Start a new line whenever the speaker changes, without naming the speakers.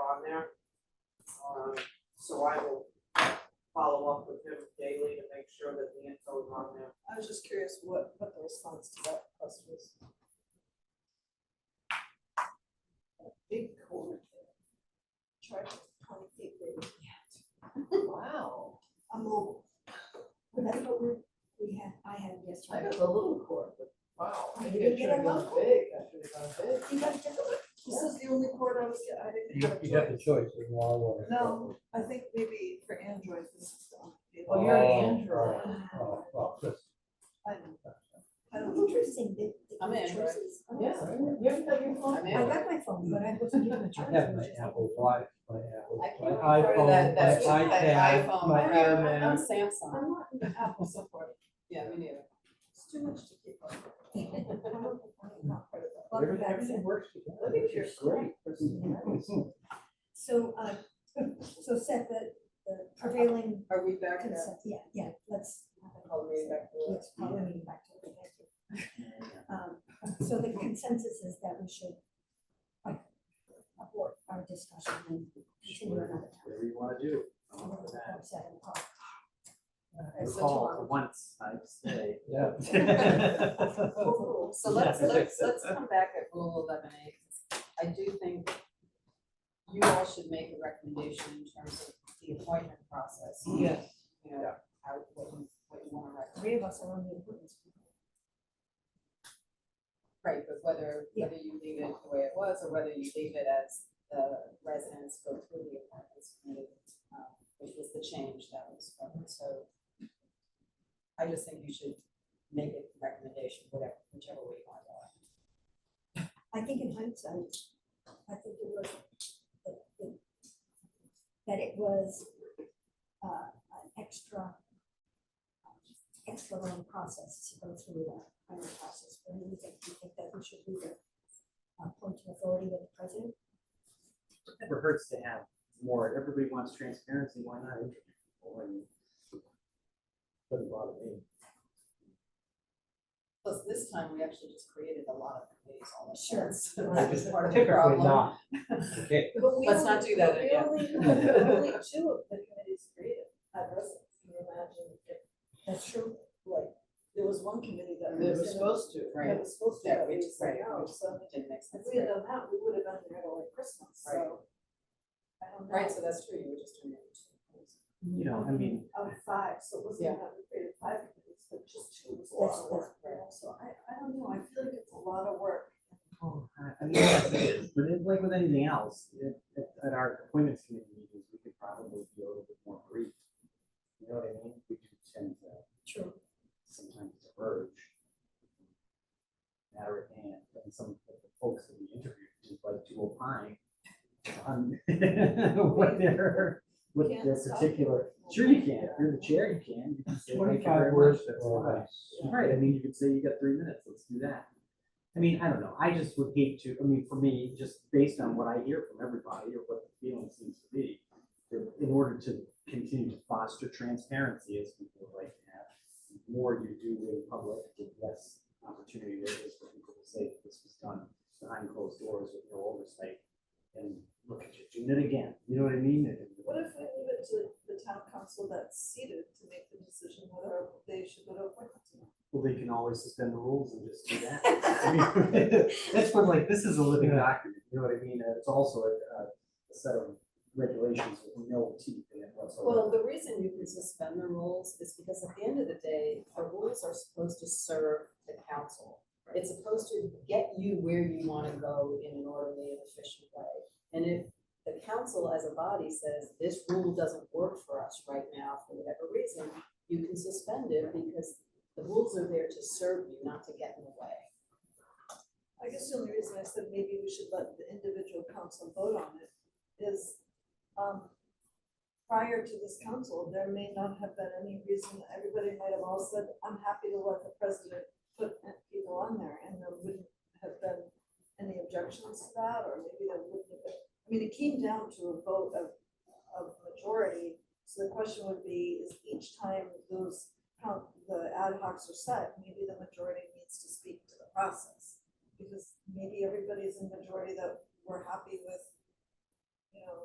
on there. Um, so I will follow up with him daily to make sure that the info is on there.
I was just curious what, what the response to that post was. A big cord. Charged twenty feet big.
Wow,
A mobile. Well, That's what we, we had, I had
I
yesterday.
got the little cord, but wow,
Oh,
maybe
you
I
get
should have
a
gone
little
big, I should have gone big.
You got a different one?
This
is the only cord I was, I
You, you have the choice in law or.
No, I think maybe for Android, this is the only.
Oh, you're
Oh,
an Android.
Oh, well, uh, that's-
I know. I don't-
Interesting that. that
I'm
you
Android.
chose these. Oh,
Yeah, you haven't got your phone?
I'm
I got my phone, but I wasn't given a
I
charge.
have my
which is-
Apple Watch, my Apple,
I
my
can't remember
iPhone,
that,
my
that's my
iPad,
iPhone,
my
I'm- I'm
Airman.
Samsung,
I'm not an Apple support.
yeah, me neither.
It's too much to keep up.
I'm not- I'm not part of that. Welcome
Everything,
back.
everything works together.
Look at
It's
your
great.
So, uh, so set the, the prevailing
Are we back at?
consent, yeah, yeah, let's. have a
I'll read back to
Let's probably meeting back to it, thank you. Um, so the consensus is that we should uh, abort our discussion and continue another time.
Whatever you wanna do. I'm
We're
up for
gonna
that.
have seven o'clock.
We're
It's such a
called
long-
for once, I say.
Yeah.
Cool. So let's, let's, let's come back at rule eleven A, 'cause I do think you all should make a recommendation in terms of the appointment process, you
Yes.
know, how, what you, what you wanna recommend.
Three of us are on the appointments.
Right, but whether, whether you leave it the way it was, or whether you leave it as the residents go through the apartments committee, um, which was the change that was from, so. I just think you should make a recommendation, whatever, whichever way you want to go.
I think in hindsight, I think it was, that- that- that it was uh, an extra, uh, extra long process to go through that kind of process. But do you think, do you think that we should leave it uh, point to authority with the president?
It never hurts to have more, everybody wants transparency, why not? interview people? I mean, Doesn't bother me.
Plus, this time, we actually just created a lot of committees all at
Sure.
once, so that was part of the
Typically
problem.
not. Okay.
But we
Let's not
only-
do that
but we
again.
only- but Only two of the committees created at residence, can you imagine if,
That's true.
like, there was one committee that was.
They were
gonna-
supposed to, right?
That was supposed to,
Yeah,
that
we
we
just-
said
right,
oh,
no,
we
so
Didn't make sense.
if we had done that, we would have been there till like Christmas,
Right.
so. I don't know.
Right, so that's true, you were just doing it.
You know, I mean,
Of five, so it
Yeah.
wasn't that we created five committees, but just two was a
That's-
lot of work,
that's-
right? so I, I don't know, I feel like it's a lot of work.
oh, I, I mean, that's it. but it's like with anything else, at, at- at our appointments committee meetings, we could probably be a little bit more brief. You know what I mean? We do tend to
True.
sometimes diverge. Matter at hand, and some of the folks that we interviewed just like to opine on what their, what
Can't
their
stop
particular.
people.
Sure you can, if you're the chair, you can. You can say, "Thank you very
Twenty-five
much,
words
that's
or
fine."
less.
Right, I mean, you could say you got three minutes, let's do that. I mean, I don't know, I just would hate to, I mean, for me, just based on what I hear from everybody or what the feeling seems to be, in order to continue to foster transparency as people would like to have, the more you do in public, the less opportunity there is for people to say that this was done behind closed doors with no oversight. And look at you, doing it again, you know what I mean? And-
What if we leave it to the town council that's seated to make the decision whether they should go to appointments or not?
Well, they can always suspend the rules and just do that. I mean, That's what, like, this is a living document, you know what I mean? Uh, It's also a, a set of regulations with no teeth in it whatsoever.
Well, the reason you can suspend the rules is because at the end of the day, the rules are supposed to serve the council. It's supposed to get you where you wanna go in an orderly and efficient way. And if the council as a body says, this rule doesn't work for us right now for whatever reason, you can suspend it because the rules are there to serve you, not to get in the way.
I guess the only reason I said maybe we should let the individual council vote on it is, um, prior to this council, there may not have been any reason, everybody might have all said, I'm happy to let the president put people on there, and there wouldn't have been any objections to that, or maybe there wouldn't have been. I mean, it came down to a vote of, of majority, so the question would be, is each time those, count the ad hocs are set, maybe the majority needs to speak to the process because maybe everybody's in majority that we're happy with you know,